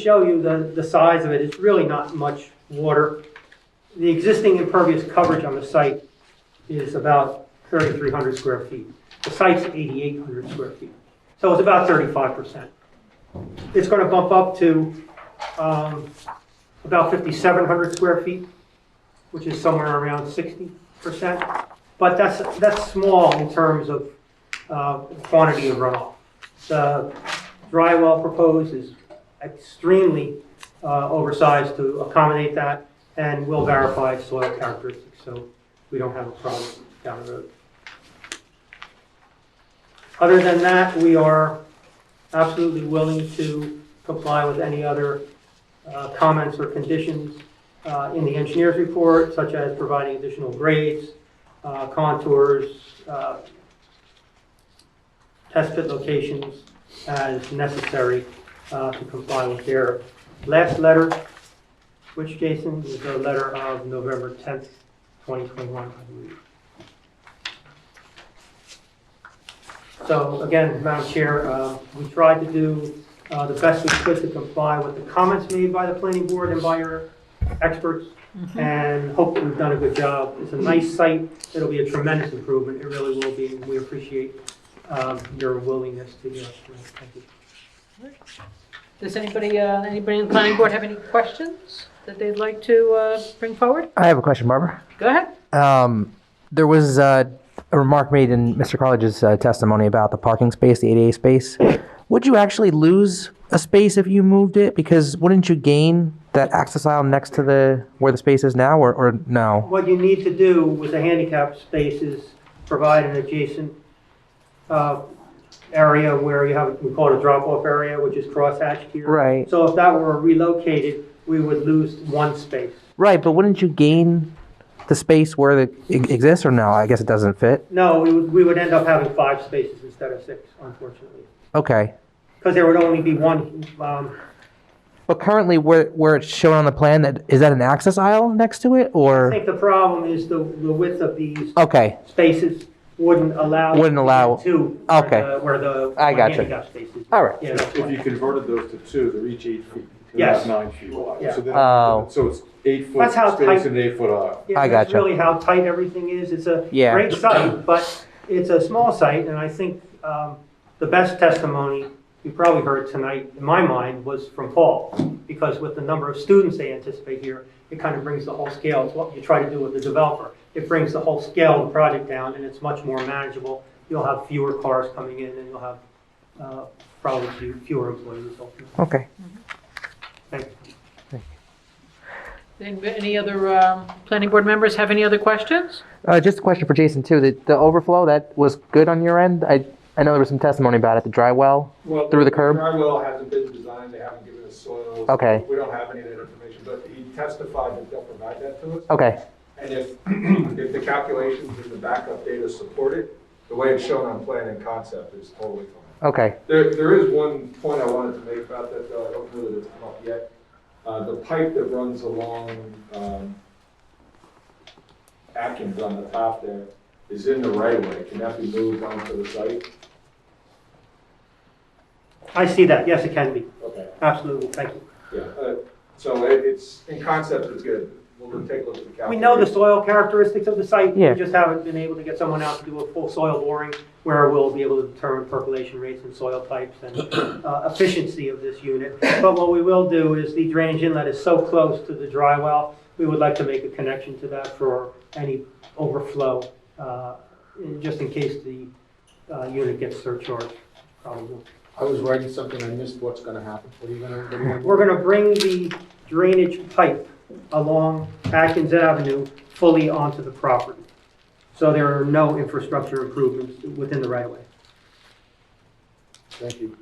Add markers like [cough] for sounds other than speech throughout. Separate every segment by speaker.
Speaker 1: show you the, the size of it, it's really not much water. The existing impervious coverage on the site is about 3,300 square feet. The site's 8,800 square feet, so it's about 35%. It's going to bump up to um, about 5,700 square feet, which is somewhere around 60%. But that's, that's small in terms of uh, quantity of runoff. The dry well proposed is extremely uh, oversized to accommodate that, and will verify soil characteristics, so we don't have a problem down the road. Other than that, we are absolutely willing to comply with any other uh, comments or conditions uh, in the engineer's report, such as providing additional grades, uh, contours, uh, test pit locations as necessary uh, to comply with their last letter, which, Jason, is the letter of November 10th, 2021, I believe. So again, Madam Chair, uh, we tried to do uh, the best we could to comply with the comments made by the planning board and by your experts, and hope that we've done a good job. It's a nice site, it'll be a tremendous improvement, it really will be, and we appreciate um, your willingness to do it. Thank you.
Speaker 2: Does anybody, uh, anybody in the planning board have any questions that they'd like to uh, bring forward?
Speaker 3: I have a question, Barbara.
Speaker 2: Go ahead.
Speaker 3: Um, there was uh, a remark made in Mr. College's uh, testimony about the parking space, the ADA space. Would you actually lose a space if you moved it? Because wouldn't you gain that access aisle next to the where the space is now, or, or no?
Speaker 1: What you need to do with the handicap space is provide an adjacent uh, area where you have, we call it a drop-off area, which is crosshatched here.
Speaker 3: Right,
Speaker 1: So if that were relocated, we would lose one space.
Speaker 3: right. But wouldn't you gain the space where it e- exists, or no? I guess it doesn't fit.
Speaker 1: No, we would, we would end up having five spaces instead of six, unfortunately.
Speaker 3: Okay.
Speaker 1: Because there would only be one, um,
Speaker 3: But currently, where where it's shown on the plan, that is that an access aisle next to it,
Speaker 1: I
Speaker 3: or
Speaker 1: think the problem is the, the width of these
Speaker 3: okay?
Speaker 1: spaces wouldn't allow.
Speaker 3: Wouldn't allow-
Speaker 1: Two.
Speaker 3: Okay.
Speaker 1: Where the. where
Speaker 3: I
Speaker 1: the
Speaker 3: gotcha.
Speaker 1: Handicap spaces.
Speaker 3: All right.
Speaker 1: Yeah, that's
Speaker 4: If
Speaker 1: why.
Speaker 4: you converted those to two, they're each eight feet. they're
Speaker 1: Yes.
Speaker 4: Nine feet wide.
Speaker 1: Yeah.
Speaker 4: So then-
Speaker 3: Oh.
Speaker 4: So it's eight foot
Speaker 1: That's how tight-
Speaker 4: space and an eight foot aisle.
Speaker 1: Yeah,
Speaker 3: I
Speaker 1: that's
Speaker 3: gotcha.
Speaker 1: really how tight everything is. It's a
Speaker 3: Yeah.
Speaker 1: great site, but it's a small site, and I think um, the best testimony you probably heard tonight, in my mind, was from Paul, because with the number of students they anticipate here, it kind of brings the whole scale, it's what you try to do with the developer. It brings the whole scale of the project down, and it's much more manageable. You'll have fewer cars coming in, and you'll have uh, probably few- fewer employees ultimately.
Speaker 3: Okay.
Speaker 1: Thank you.
Speaker 2: Any any other um, planning board members have any other questions?
Speaker 3: Uh, just a question for Jason too. The, the overflow that was good on your end. I I know there was some testimony about it. The dry well.
Speaker 5: Well,
Speaker 3: Through the curb?
Speaker 5: Dry well hasn't been designed, they haven't given us soils.
Speaker 3: Okay.
Speaker 5: We don't have any of that information, but he testified that they'll provide that to us.
Speaker 3: Okay.
Speaker 5: And if, [clears throat] if the calculations in the backup data support it, the way it's shown on plan and concept is totally fine.
Speaker 3: Okay.
Speaker 5: There, there is one point I wanted to make about that, though, I don't know that it's come up yet. Uh, the pipe that runs along, um, Atkins on the top there is in the right of way, can that be moved onto the site?
Speaker 1: I see that, yes, it can be,
Speaker 5: Okay.
Speaker 1: absolutely, thank you.
Speaker 5: Yeah, uh, so it- it's, in concept, it's good. We'll take a look at the calculations.
Speaker 1: We know the soil characteristics of the site.
Speaker 3: Yeah.
Speaker 1: We just haven't been able to get someone out to do a full soil boring where we'll be able to determine percolation rates and soil types and uh, efficiency of this unit. But what we will do is the drainage inlet is so close to the dry well, we would like to make a connection to that for any overflow, uh, in- just in case the uh, unit gets surcharged. probably.
Speaker 6: I was writing something, I missed what's gonna happen. What are you gonna, what are you gonna-
Speaker 1: We're going to bring the drainage pipe along Atkins Avenue fully onto the property. So there are no infrastructure improvements within the right-of-way.
Speaker 6: thank you.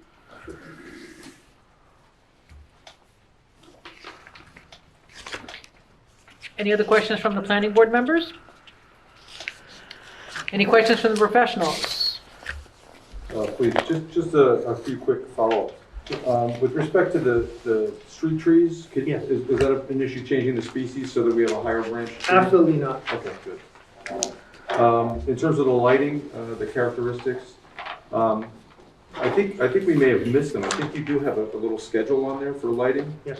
Speaker 2: Any other questions from the planning board members? Any questions from the professionals?
Speaker 4: Uh, Please, just, just a, a few quick follow-ups. Um, With respect to the, the street trees, could-
Speaker 1: Yeah.
Speaker 4: is, is that an issue changing the species so that we have a higher branch? tree?
Speaker 1: Absolutely not.
Speaker 4: Okay, good. Um, In terms of the lighting, uh, the characteristics, um,
Speaker 5: I think, I think we may have missed them. I think you do have a a little schedule on there for lighting.